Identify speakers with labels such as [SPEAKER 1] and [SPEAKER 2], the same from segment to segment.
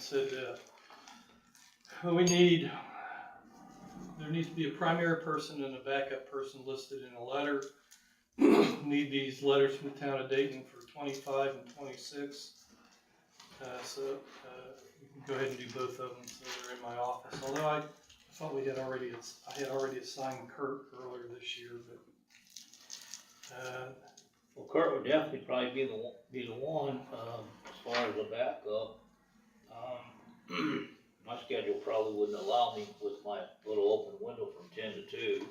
[SPEAKER 1] said, uh, we need, there needs to be a primary person and a backup person listed in a letter. Need these letters from the town of Dayton for twenty-five and twenty-six. Uh, so, uh, you can go ahead and do both of them, so they're in my office, although I thought we had already, I had already assigned Kurt earlier this year, but. Uh,
[SPEAKER 2] Well, Kurt would definitely probably be the, one- be the one, um, as far as the backup. Um, my schedule probably wouldn't allow me with my little open window from ten to two.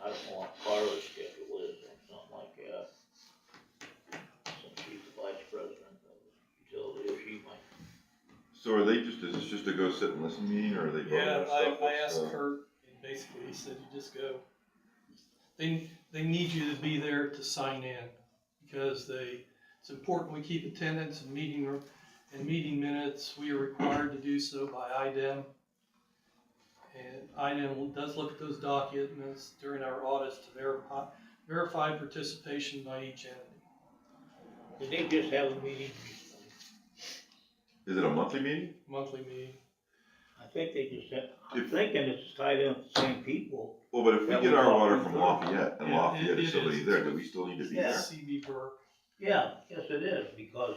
[SPEAKER 2] I don't know what Carla's schedule is or something like that. Since she's the vice president of utility, she might.
[SPEAKER 3] So are they just, is this just a go sit and listen meeting, or are they voting
[SPEAKER 1] Yeah,
[SPEAKER 3] on
[SPEAKER 1] I,
[SPEAKER 3] stuff?
[SPEAKER 1] I asked
[SPEAKER 3] What's, uh,
[SPEAKER 1] Kurt, and basically he said, you just go. They, they need you to be there to sign in, because they, it's important we keep attendance and meeting, r- and meeting minutes, we are required to do so by IDEM. And IDEM does look at those documents during our audits to verify, verify participation by each entity.
[SPEAKER 2] Did they just have a meeting?
[SPEAKER 3] Is it a monthly meeting?
[SPEAKER 1] Monthly meeting,
[SPEAKER 2] I think they just had, I'm
[SPEAKER 3] If-
[SPEAKER 2] thinking it's tied in with the same people.
[SPEAKER 3] Well, but if we
[SPEAKER 2] That
[SPEAKER 3] get
[SPEAKER 2] would
[SPEAKER 3] our
[SPEAKER 2] probably
[SPEAKER 3] water
[SPEAKER 2] be
[SPEAKER 3] from
[SPEAKER 2] third.
[SPEAKER 3] Lafayette, and
[SPEAKER 1] Yeah,
[SPEAKER 3] Lafayette
[SPEAKER 1] it-
[SPEAKER 3] is
[SPEAKER 1] it
[SPEAKER 3] somebody
[SPEAKER 1] is.
[SPEAKER 3] there, do we still need to be there?
[SPEAKER 2] Yes.
[SPEAKER 1] CB Burke.
[SPEAKER 2] Yeah, yes, it is, because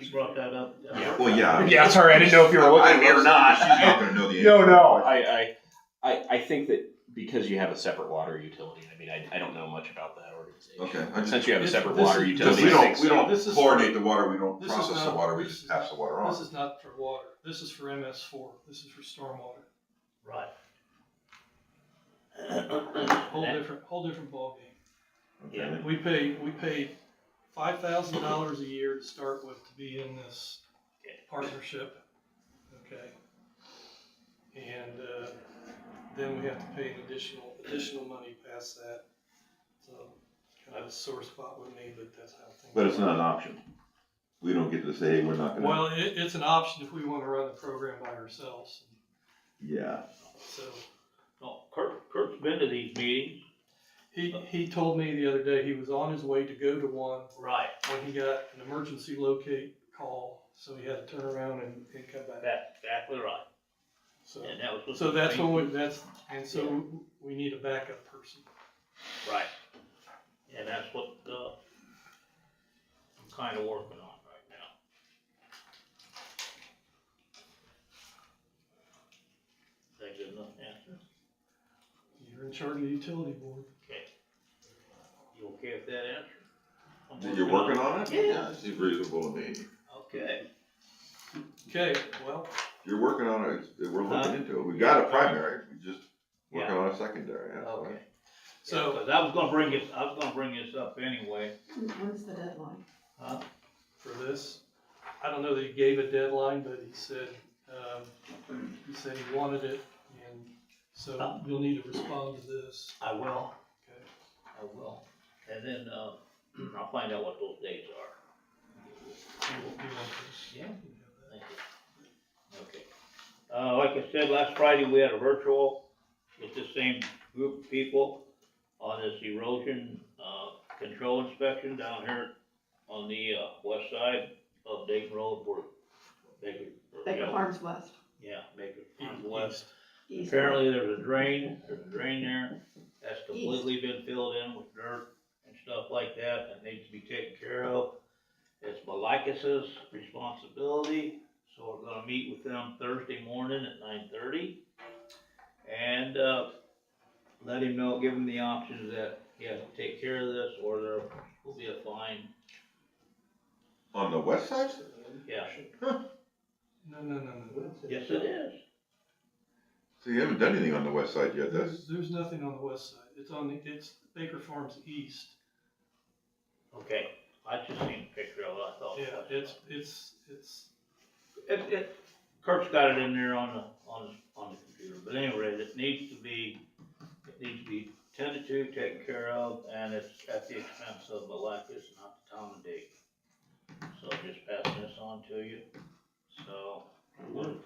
[SPEAKER 2] she brought that up.
[SPEAKER 4] Yeah.
[SPEAKER 3] Well, yeah.
[SPEAKER 4] Um, Yeah, sorry, I didn't know if you were looking at me or not.
[SPEAKER 3] She's not gonna know the answer.
[SPEAKER 4] No, no, I, I, I, I think that because you have a separate water utility, I mean, I, I don't know much about that organization.
[SPEAKER 3] Okay, I just,
[SPEAKER 4] Since you have a
[SPEAKER 1] This-
[SPEAKER 4] separate
[SPEAKER 1] this
[SPEAKER 4] water
[SPEAKER 1] is-
[SPEAKER 3] because
[SPEAKER 4] utility,
[SPEAKER 3] we
[SPEAKER 4] I
[SPEAKER 3] don't,
[SPEAKER 4] think
[SPEAKER 3] we
[SPEAKER 4] so.
[SPEAKER 1] This
[SPEAKER 3] don't
[SPEAKER 1] is-
[SPEAKER 3] chlorinate the water, we don't
[SPEAKER 1] This is
[SPEAKER 3] process the
[SPEAKER 1] not-
[SPEAKER 3] water, we
[SPEAKER 1] this
[SPEAKER 3] just
[SPEAKER 1] is
[SPEAKER 3] pass the water
[SPEAKER 1] This
[SPEAKER 3] on.
[SPEAKER 1] is not for water, this is for MS four, this is for stormwater,
[SPEAKER 2] Right.
[SPEAKER 1] whole different, whole different ballgame.
[SPEAKER 3] Okay.
[SPEAKER 1] We pay, we pay five thousand dollars a year to start with to be in this partnership, okay? And, uh, then we have to pay an additional, additional money past that, so, kind of a sore spot with me, but that's how things.
[SPEAKER 3] But it's
[SPEAKER 1] work.
[SPEAKER 3] not an option. We don't get to say, hey, we're not gonna,
[SPEAKER 1] Well, it, it's an option if we wanna run the program by ourselves,
[SPEAKER 3] yeah.
[SPEAKER 1] so.
[SPEAKER 2] No, Kurt, Kurt's been to these meetings.
[SPEAKER 1] He, he told me the other day he was on his way to go to one
[SPEAKER 2] Right.
[SPEAKER 1] when he got an emergency locate call, so he had to turn around and, and come back.
[SPEAKER 2] That's exactly right,
[SPEAKER 1] So,
[SPEAKER 2] and that was. what
[SPEAKER 1] so
[SPEAKER 2] the
[SPEAKER 1] that's when
[SPEAKER 2] meeting-
[SPEAKER 1] we, that's, and so we need a backup person.
[SPEAKER 2] Right, and that's what, uh, I'm kinda working on right now. Is that good enough answer?
[SPEAKER 1] You're in charge of the utility board.
[SPEAKER 2] Okay. You okay with that answer? I'm
[SPEAKER 3] You're working
[SPEAKER 2] it.
[SPEAKER 3] on it? Yeah. It seems reasonable to me.
[SPEAKER 2] Okay,
[SPEAKER 1] Okay, well,
[SPEAKER 3] You're working on it, it's- we're
[SPEAKER 2] Huh?
[SPEAKER 3] looking into it. We got a primary, we just working
[SPEAKER 2] yeah,
[SPEAKER 3] on a secondary, that's why.
[SPEAKER 2] okay.
[SPEAKER 1] so,
[SPEAKER 2] Because I was gonna bring this, I was gonna bring this up anyway.
[SPEAKER 5] When's the deadline?
[SPEAKER 2] Huh?
[SPEAKER 1] for this. I don't know that he gave a deadline, but he said, um, he said he wanted it, and so you'll need to respond to this.
[SPEAKER 2] I will.
[SPEAKER 1] Okay.
[SPEAKER 2] I will. And then, uh, I'll find out what those dates are.
[SPEAKER 1] You want this?
[SPEAKER 2] Yeah.
[SPEAKER 1] You have that.
[SPEAKER 2] Thank you. Okay. Uh, like I said, last Friday, we had a virtual with the same group of people on this erosion, uh, control inspection down here on the, uh, west side of Dayton Road where Baker. or-
[SPEAKER 5] Baker Farms West,
[SPEAKER 2] Yeah, Baker Farms
[SPEAKER 1] East.
[SPEAKER 2] West.
[SPEAKER 5] east.
[SPEAKER 2] Apparently there's a drain, there's a drain there, that's completely been filled in with dirt and stuff like that, that needs to be taken care of. It's Malikas's responsibility, so we're gonna meet with them Thursday morning at nine thirty. And, uh, let him know, give him the options that he has to take care of this, or there will be a fine,
[SPEAKER 3] On the west side?
[SPEAKER 2] yeah.
[SPEAKER 1] No, no, no, no.
[SPEAKER 2] Yes, it is,
[SPEAKER 3] So you haven't done anything on the west side yet, that's.
[SPEAKER 1] There's, there's nothing on the west side, it's on the, it's Baker Farms East.
[SPEAKER 2] okay, I just seen a picture of it, I thought.
[SPEAKER 1] Yeah, it's, it's, it's,
[SPEAKER 2] it, it, Kurt's got it in there on the, on the, on the computer, but anyway, it needs to be, it needs to be tended to, taken care of, and it's at the expense of the life, it's not the time of day. So just passing this on to you, so, we'll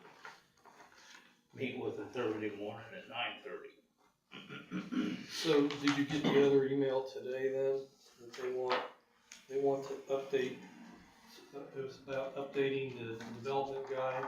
[SPEAKER 2] meet with him Thursday morning at nine thirty.
[SPEAKER 1] so did you get the other email today then, that they want, they want to update, it was about updating the development guide.